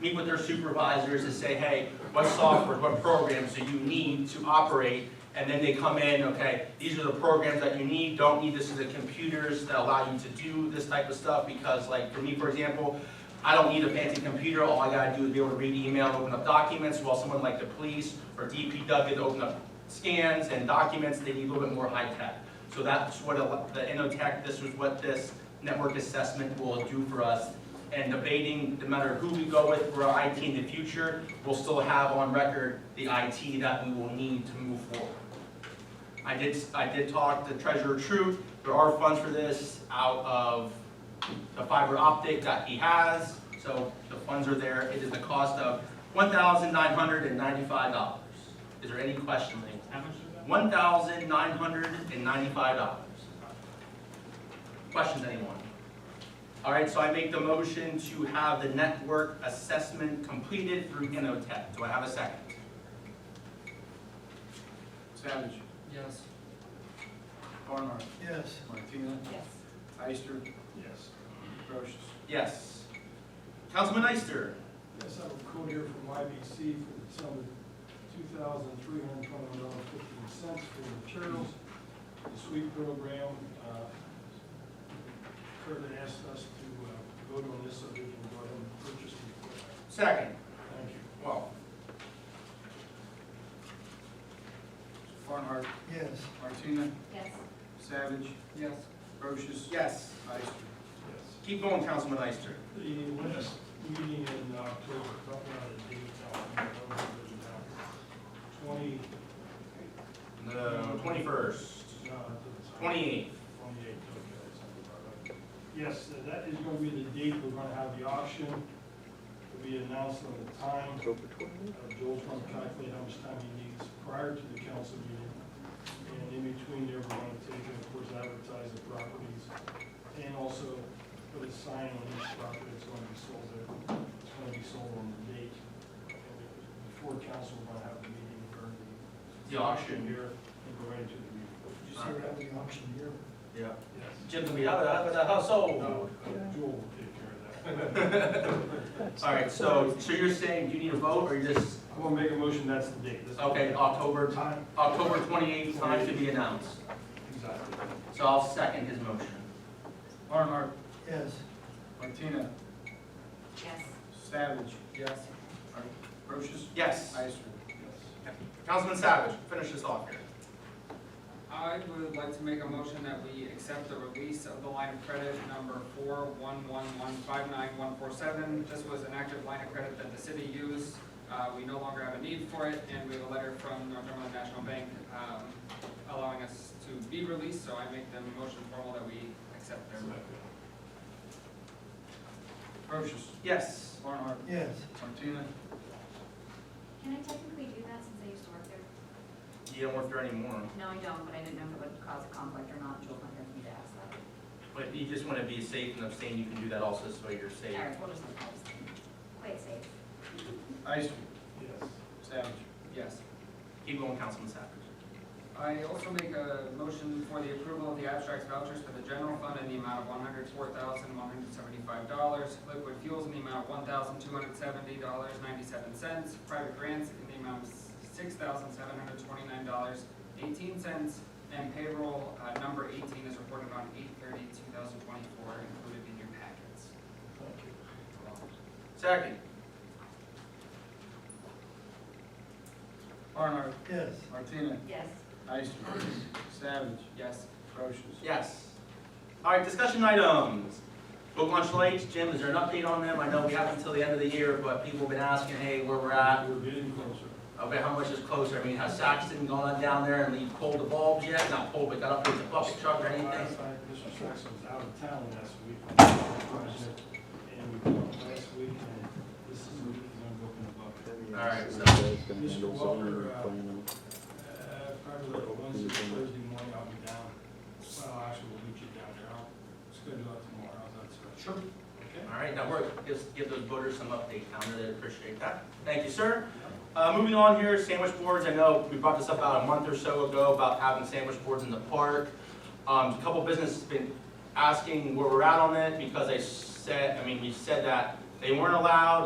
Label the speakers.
Speaker 1: meet with their supervisors and say, hey, what software, what programs do you need to operate? And then they come in, okay, these are the programs that you need, don't need, this is the computers that allow you to do this type of stuff, because like, for me, for example, I don't need a fancy computer, all I gotta do is be able to read email, and open up documents, while someone like the police or DPW to open up scans and documents, they need a little bit more high tech. So that's what a- the InnoTech, this was what this network assessment will do for us. And debating, no matter who we go with for our IT in the future, we'll still have on record the IT that we will need to move forward. I did, I did talk to Treasurer Troop, there are funds for this out of the fiber optic that he has, so the funds are there. It is the cost of one thousand nine hundred and ninety-five dollars. Is there any question, ladies?
Speaker 2: How much is that?
Speaker 1: One thousand nine hundred and ninety-five dollars. Questions, anyone? All right, so I make the motion to have the network assessment completed through Innotech. Do I have a second?
Speaker 3: Savage.
Speaker 4: Yes.
Speaker 3: Barnhart.
Speaker 4: Yes.
Speaker 3: Martina.
Speaker 5: yes,
Speaker 3: Ister.
Speaker 4: Yes.
Speaker 3: Procius.
Speaker 1: Yes. Councilman Ister?
Speaker 6: Yes, I have a quote here from YBC for the sum of two thousand three hundred twenty-one dollars fifteen cents for materials. The sweep program, uh, Kurt had asked us to uh, vote on this so we can go ahead and purchase the equipment.
Speaker 1: Second.
Speaker 6: Thank you.
Speaker 1: Well,
Speaker 3: Barnhart.
Speaker 4: Yes.
Speaker 3: Martina.
Speaker 5: yes,
Speaker 3: Savage.
Speaker 4: Yes.
Speaker 3: Procius.
Speaker 1: yes.
Speaker 3: Ister.
Speaker 6: Yes.
Speaker 1: Keep going, Councilman Ister.
Speaker 6: The last meeting in October, I don't know the date, I'll remember it now. Twenty, uh,
Speaker 1: No, twenty-first,
Speaker 6: no, it's-
Speaker 1: twenty-eighth.
Speaker 6: Twenty-eight, okay, that sounds about right. Yes, uh, that is gonna be the date we're gonna have the auction. It'll be announced on the time. October twenty? Joel's gonna calculate how much time he needs prior to the council meeting. And in between there, we're gonna take, and of course, advertise the properties and also put a sign on each property that's gonna be sold there. It's gonna be sold on the date. And Before council, we're gonna have the meeting or the.
Speaker 1: The auction.
Speaker 6: Here and go right into the meeting.
Speaker 4: Did you say we're having an auction here?
Speaker 1: Yeah.
Speaker 6: Yes.
Speaker 1: Jim's gonna be out of the household.
Speaker 6: No, Jewel will take care of that.
Speaker 1: All right, so, so you're saying you need a vote, or you just,
Speaker 6: I will make a motion, that's the date. That's-
Speaker 1: okay, October,
Speaker 6: Time,
Speaker 1: October twenty-eighth, time to be announced.
Speaker 6: exactly.
Speaker 1: So I'll second his motion.
Speaker 3: Barnhart.
Speaker 4: Yes.
Speaker 3: Martina.
Speaker 5: yes,
Speaker 3: Savage.
Speaker 4: Yes.
Speaker 3: Procius.
Speaker 1: Yes.
Speaker 3: Ister.
Speaker 6: Yes.
Speaker 1: Councilman Savage, finish this off here.
Speaker 7: I would like to make a motion that we accept the release of the line of credit number four one one one five nine one four seven. This was an active line of credit that the city used. Uh, we no longer have a need for it, and we have a letter from Northumberland National Bank, um, allowing us to be released, so I make the motion formal that we accept their.
Speaker 3: Procius.
Speaker 1: Yes.
Speaker 3: Barnhart.
Speaker 4: Yes.
Speaker 3: Martina.
Speaker 5: can I technically do that since I used to work there?
Speaker 1: You don't work there anymore,
Speaker 5: No, I don't, but I didn't know if it would cause a conflict or not, Joel's not here for me to ask that.
Speaker 1: but if you just wanna be safe and abstain, you can do that also, so you're safe.
Speaker 5: All right, we'll just leave that. Quite safe,
Speaker 3: Ister.
Speaker 6: Yes.
Speaker 3: Savage.
Speaker 7: Yes.
Speaker 1: Keep going, Councilman Savage.
Speaker 7: I also make a motion for the approval of the abstracts vouchers for the general fund in the amount of one hundred four thousand, one hundred seventy-five dollars, liquid fuels in the amount of one thousand, two hundred seventy dollars, ninety-seven cents, private grants in the amount of six thousand, seven hundred twenty-nine dollars, eighteen cents, and payroll, uh, number eighteen is reported on eight thirty, two thousand twenty-four, included in your packets.
Speaker 6: Thank you.
Speaker 1: Second.
Speaker 3: Barnhart.
Speaker 4: Yes.
Speaker 3: Martina.
Speaker 5: yes,
Speaker 3: Ister. Savage.
Speaker 7: Yes.
Speaker 3: Procius.
Speaker 1: Yes. All right, discussion items. Boat launch lights, Jim, is there an update on them? I know we have until the end of the year, but people have been asking, hey, where we're at.
Speaker 6: We're getting closer.
Speaker 1: Okay, how much is closer? I mean, has Saxton gone down there and they pulled the bulbs yet? Not pulled, but got up with the bucket truck or anything?
Speaker 6: Last night, Mr. Saxon was out of town last week. on the project, And we talked last week, and this is, I'm looking above.
Speaker 1: All right, so,
Speaker 6: Mr. Walker, uh, Uh, probably like Wednesday, Thursday morning, I'll be down. Well, actually, we'll meet you down there. I'll schedule out tomorrow, that's right. Sure. Okay.
Speaker 1: all right, now we're, just give those voters some update, I really appreciate that. Thank you, sir. Uh, moving on here, sandwich boards, I know we brought this up about a month or so ago about having sandwich boards in the park. Um, a couple businesses been asking where we're at on it because they said, I mean, we said that they weren't allowed